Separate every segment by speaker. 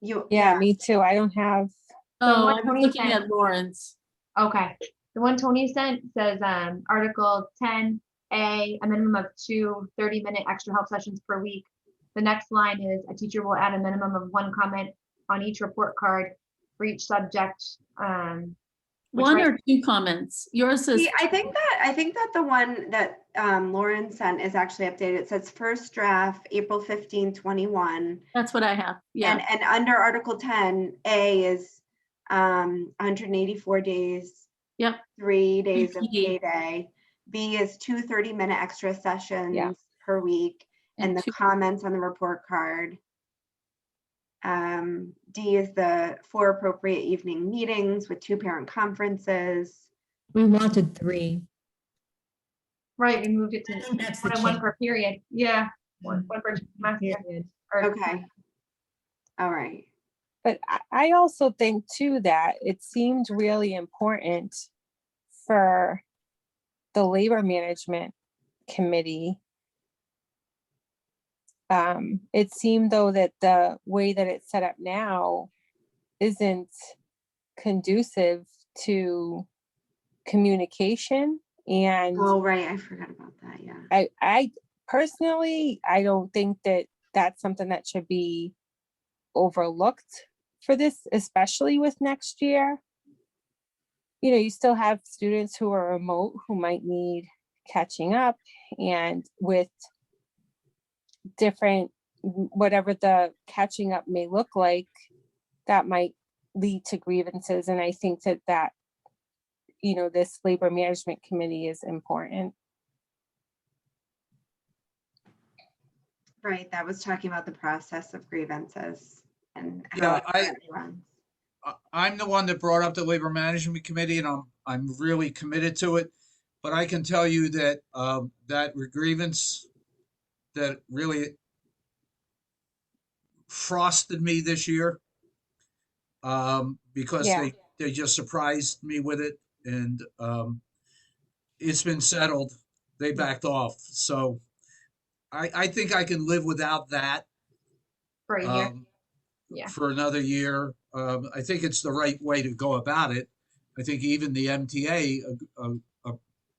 Speaker 1: You,
Speaker 2: Yeah, me too. I don't have,
Speaker 3: Oh,
Speaker 4: what
Speaker 3: I'm
Speaker 4: Tony
Speaker 3: looking
Speaker 4: said.
Speaker 3: at Lawrence.
Speaker 4: Okay, the one Tony sent says, um, Article ten A, a minimum of two 30 minute extra help sessions per week. The next line is, a teacher will add a minimum of one comment on each report card for each subject, um. which
Speaker 3: One
Speaker 4: right-
Speaker 3: or two comments. Yours says,
Speaker 1: See, I think that, I think that the one that um, Lauren sent is actually updated. It says first draft, April 15, 21.
Speaker 3: that's what I have.
Speaker 1: And,
Speaker 3: Yeah,
Speaker 1: and under Article 10, A is um, 184 days.
Speaker 3: Yep.
Speaker 1: Three days of
Speaker 3: PD.
Speaker 1: payday. B is two 30-minute extra sessions per week and
Speaker 3: and
Speaker 1: the
Speaker 3: two,
Speaker 1: comments on the report card. Um, D is the four appropriate evening meetings with two parent conferences.
Speaker 5: We wanted three.
Speaker 4: Right, we moved it
Speaker 5: I
Speaker 4: to
Speaker 5: think that's the
Speaker 4: one- one
Speaker 5: change.
Speaker 4: per period, yeah. One one per semester.
Speaker 5: period.
Speaker 4: or-
Speaker 1: Okay. All right.
Speaker 2: but I, I also think too that it seemed really important for the labor management committee. Um, it seemed though that the way that it's set up now isn't conducive to communication and
Speaker 1: Oh, right. I forgot about that. Yeah.
Speaker 2: I, I personally, I don't think that that's something that should be overlooked for this, especially with next year. You know, you still have students who are remote who might need catching up and with different, w- whatever the catching up may look like, that might lead to grievances. And I think that that, you know, this labor management committee is important.
Speaker 1: Right. That was talking about the process of grievances and
Speaker 6: Yeah,
Speaker 1: how it
Speaker 6: I-
Speaker 1: currently runs.
Speaker 6: I- I'm the one that brought up the Labor Management Committee and I'm, I'm really committed to it. But I can tell you that, um, that grievance that really frosted me this year. Um, because
Speaker 2: Yeah.
Speaker 6: they, they just surprised me with it and, um, it's been settled. They backed off. So I, I think I can live without that.
Speaker 4: For a year,
Speaker 6: um,
Speaker 4: Yeah.
Speaker 6: for another year. Um, I think it's the right way to go about it. I think even the MTA ag- uh, uh,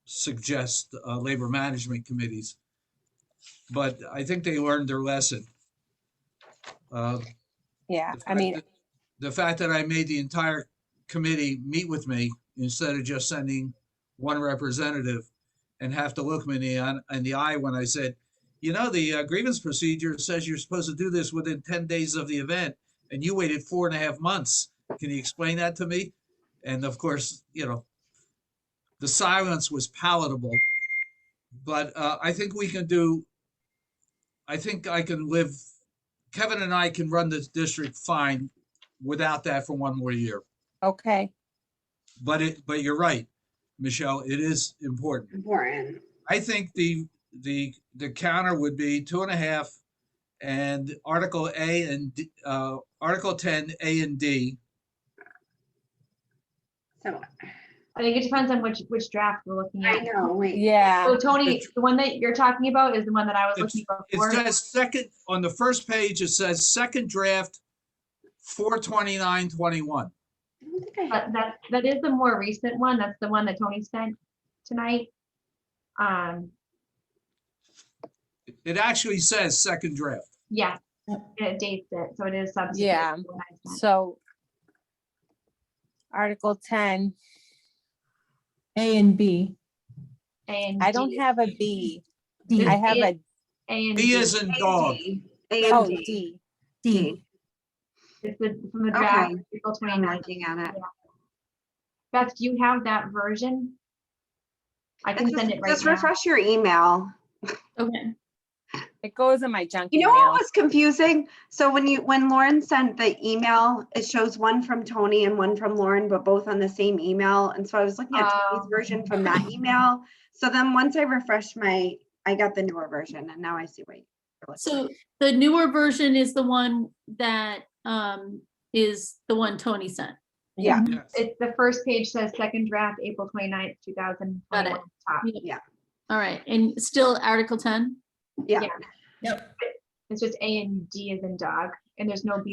Speaker 6: suggests uh, labor management committees. But I think they learned their lesson. Uh, the
Speaker 2: Yeah, I
Speaker 6: fact
Speaker 2: mean,
Speaker 6: that- The fact that I made the entire committee meet with me instead of just sending one representative and have to look me in the, eye- in the eye when I said, you know, the uh, grievance procedure says you're supposed to do this within ten days of the event, and you waited four and a half months. Can you explain that to me? And of course, you know, the silence was palatable. But uh, I think we can do, I think I can live, Kevin and I can run this district fine without that for one more year.
Speaker 2: okay,
Speaker 6: But it, but you're right, Michelle, it is important.
Speaker 1: Important.
Speaker 6: I think the, the, the counter would be two and a half and Article A and, D- uh, Article ten, A and D.
Speaker 1: So
Speaker 4: I think it depends on which, which draft we're looking
Speaker 1: I
Speaker 4: at.
Speaker 1: know, wait.
Speaker 2: yeah,
Speaker 4: So Tony,
Speaker 6: It's-
Speaker 4: the one that you're talking about is the one that I was looking
Speaker 6: It
Speaker 4: before.
Speaker 6: says second, on the first page, it says second draft, four twenty-nine, twenty-one.
Speaker 1: I don't think I have
Speaker 4: But that, that is the more recent one. That's the one that Tony sent tonight. Um,
Speaker 6: It actually says second draft.
Speaker 4: yeah, it dates it, so it is subsequent. to
Speaker 2: Yeah.
Speaker 4: the one I sent.
Speaker 2: so. Article ten,
Speaker 5: A and B.
Speaker 4: And
Speaker 2: I don't
Speaker 4: D-
Speaker 2: have a B,
Speaker 5: D.
Speaker 2: I have a,
Speaker 4: A and
Speaker 6: D
Speaker 4: D.
Speaker 6: is in dog.
Speaker 2: oh,
Speaker 1: AMD.
Speaker 2: D,
Speaker 5: D.
Speaker 4: It's the, from the draft,
Speaker 1: Okay.
Speaker 4: April
Speaker 1: I'm
Speaker 4: 29th.
Speaker 1: looking at it.
Speaker 4: Beth, do you have that version? I can
Speaker 1: It's
Speaker 4: send
Speaker 1: Just
Speaker 4: it right
Speaker 1: just
Speaker 4: now.
Speaker 1: refresh your email.
Speaker 3: okay.
Speaker 2: it goes in my junk
Speaker 1: You know what
Speaker 2: email.
Speaker 1: was confusing? So when you, when Lauren sent the email, it shows one from Tony and one from Lauren, but both on the same email. And so I was looking at Tony's
Speaker 4: Oh.
Speaker 1: version from that email. So then once I refreshed my, I got the newer version and now I see what. you're looking at.
Speaker 3: So the newer version is the one that, um, is the one Tony sent.
Speaker 2: Yeah,
Speaker 6: Yes.
Speaker 4: It's, the first page says second draft, April 29th, thousand twenty-one. Top.
Speaker 3: All right, and still Article ten?
Speaker 1: Yeah.
Speaker 4: It's just A and D is in dog, and there's no B